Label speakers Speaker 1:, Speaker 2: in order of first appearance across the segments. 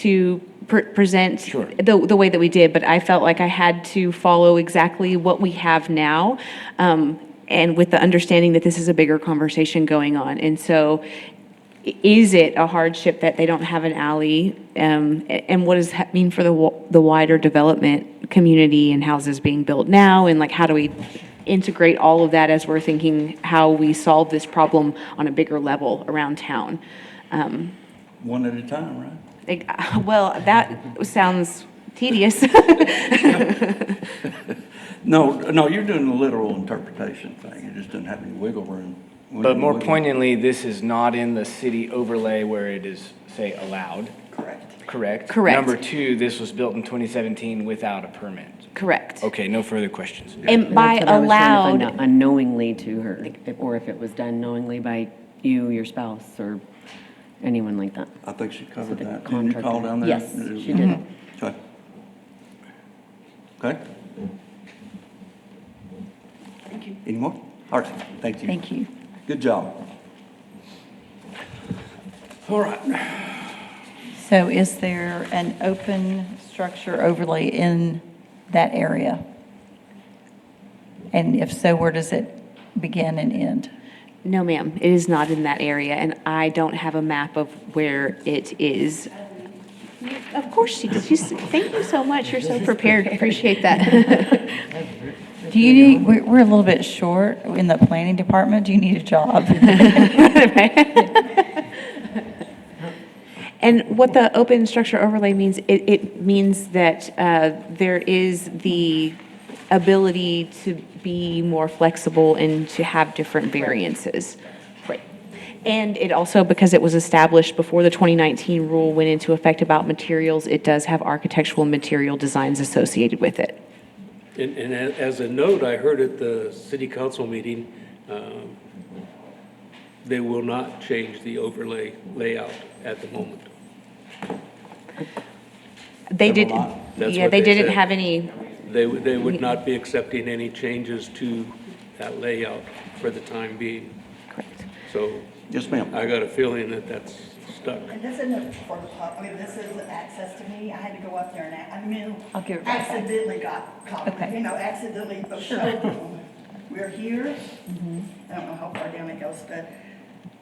Speaker 1: to pre- present
Speaker 2: Sure.
Speaker 1: the, the way that we did, but I felt like I had to follow exactly what we have now. um, And with the understanding that this is a bigger conversation going on. And so i- is it a hardship that they don't have an alley? Um, a- And what does that mean for the, wa- the wider development community and houses being built now? And like, how do we integrate all of that as we're thinking how we solve this problem on a bigger level around town?
Speaker 2: One at a time, right?
Speaker 1: Like, well, that sounds tedious.
Speaker 2: No, no, you're doing the literal interpretation thing. You just didn't have any wiggle room.
Speaker 3: But more
Speaker 2: Wiggle-
Speaker 3: poignantly, this is not in the city overlay where it is, say, allowed,
Speaker 2: Correct.
Speaker 3: correct?
Speaker 1: Correct.
Speaker 3: Number two, this was built in 2017 without a permit.
Speaker 1: Correct.
Speaker 3: Okay, no further questions.
Speaker 1: And by
Speaker 4: That's what I was trying to
Speaker 1: allowed,
Speaker 4: find out, Unknowingly to her, like, if- or if it was done knowingly by you, your spouse, or anyone like that.
Speaker 2: I think she covered
Speaker 4: the
Speaker 2: that. Didn't you call
Speaker 4: contractor-
Speaker 2: down there?
Speaker 4: Yes, she did. Mhm.
Speaker 2: Okay. Okay. Thank you. Any more? All right, thank you.
Speaker 5: Thank you.
Speaker 2: Good job. All right,
Speaker 5: So is there an open structure overlay in that area? And if so, where does it begin and end?
Speaker 1: no ma'am, it is not in that area, and I don't have a map of where it is. Of course she did. She's, thank you so much. You're so prepared. Appreciate that.
Speaker 5: Do you need, we're, we're a little bit short in the planning department. Do you need a job?
Speaker 1: And what the open structure overlay means, it, it means that uh, there is the ability to be more flexible and to have different variances. Right. And it also, because it was established before the 2019 rule went into effect about materials, it does have architectural material designs associated with it.
Speaker 6: And, and a- as a note, I heard at the city council meeting, um, they will not change the overlay layout at the moment.
Speaker 1: They did,
Speaker 2: lot.
Speaker 6: That's
Speaker 1: yeah,
Speaker 6: what
Speaker 1: they
Speaker 6: they
Speaker 1: didn't
Speaker 6: said.
Speaker 1: have any,
Speaker 6: They, would- they would not be accepting any changes to that layout for the time being.
Speaker 1: correct.
Speaker 6: So
Speaker 2: yes, ma'am.
Speaker 6: I got a feeling that that's stuck.
Speaker 7: And this isn't for the pub, I mean, this isn't access to me, I had to go up there and I, I knew.
Speaker 5: I'll give it right back.
Speaker 7: Accidentally got caught,
Speaker 5: Okay.
Speaker 7: you know, accidentally, the showroom. We're here,
Speaker 5: Mm-hmm.
Speaker 7: I don't know how far down it goes, but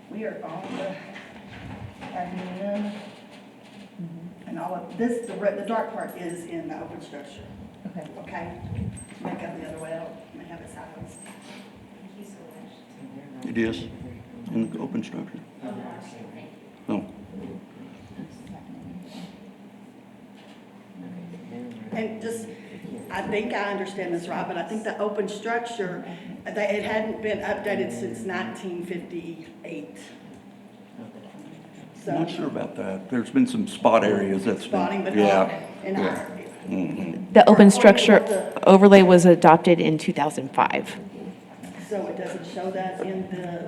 Speaker 7: we are on the avenue.
Speaker 5: Mm-hmm.
Speaker 7: And all of, this, the red, the dark part is in the open structure,
Speaker 5: Okay.
Speaker 7: okay? Might go the other way out, might have it sideways.
Speaker 2: It is in the open structure. No.
Speaker 7: And just, I think I understand this, Robin, I think the open structure, that it hadn't been updated since nineteen fifty-eight.
Speaker 2: I'm
Speaker 7: So,
Speaker 2: not sure about that. There's been some spot areas that's been.
Speaker 7: spotting, but not
Speaker 2: Yeah.
Speaker 7: in
Speaker 2: yeah.
Speaker 7: our,
Speaker 1: The open
Speaker 7: Or-
Speaker 1: structure overlay was adopted in 2005.
Speaker 7: so it doesn't show that in the,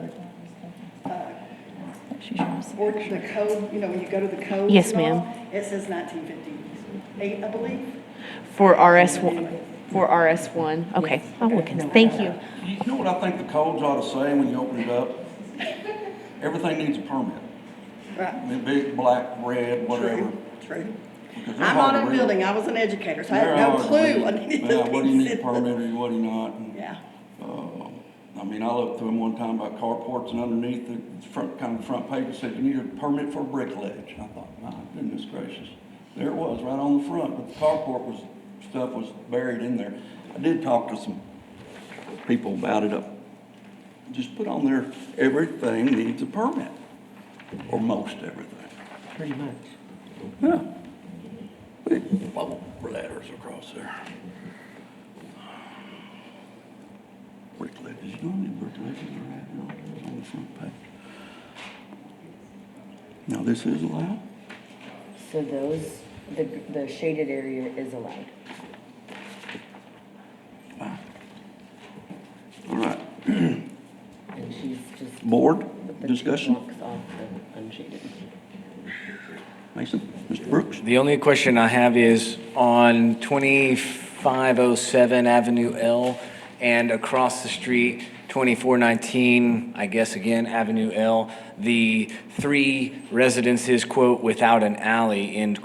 Speaker 5: She's yours.
Speaker 7: or the code, you know, when you go to the code.
Speaker 1: Yes,
Speaker 7: It says nineteen fifty-eight, I believe.
Speaker 1: For RS1, for RS1, Oh, okay, I'll look into, thank you.
Speaker 2: You know what I think the codes ought to say when you open it up? Everything needs a permit.
Speaker 7: Right,
Speaker 2: The Big, black, red, whatever.
Speaker 7: true, true.
Speaker 2: because they're
Speaker 7: I'm
Speaker 2: hard
Speaker 7: not
Speaker 2: to
Speaker 7: in
Speaker 2: read.
Speaker 7: building, I was an educator, so I
Speaker 2: They're
Speaker 7: had no
Speaker 2: hard to
Speaker 7: clue.
Speaker 2: read.
Speaker 7: I needed
Speaker 2: Yeah, what do you need a
Speaker 7: these-
Speaker 2: permit or what do you not? and,
Speaker 7: Yeah,
Speaker 2: uh, I mean, I looked through them one time about carports and underneath the front, kind of the front page, it said you need a permit for a brick ledge. I thought, my goodness gracious. There it was, right on the front, but the carport was, stuff was buried in there. I did talk to some people about it. uh, Just put on there, everything needs a permit, or most everything.
Speaker 4: Pretty much.
Speaker 2: Yeah. Big bubble ladders across there. Brick ledges, you know how many brick ledges are at now on the front page? Now, this is allowed?
Speaker 4: So those, the, the shaded area is allowed.
Speaker 2: Wow. All right,
Speaker 4: And she's just.
Speaker 2: board,
Speaker 4: but the two
Speaker 2: discussion,
Speaker 4: Blocks off the unshaded.
Speaker 2: Mason, Mr. Brooks?
Speaker 3: The only question I have is on 2507 Avenue L and across the street, 2419, I guess again, Avenue L, the three residences, quote, without an alley, end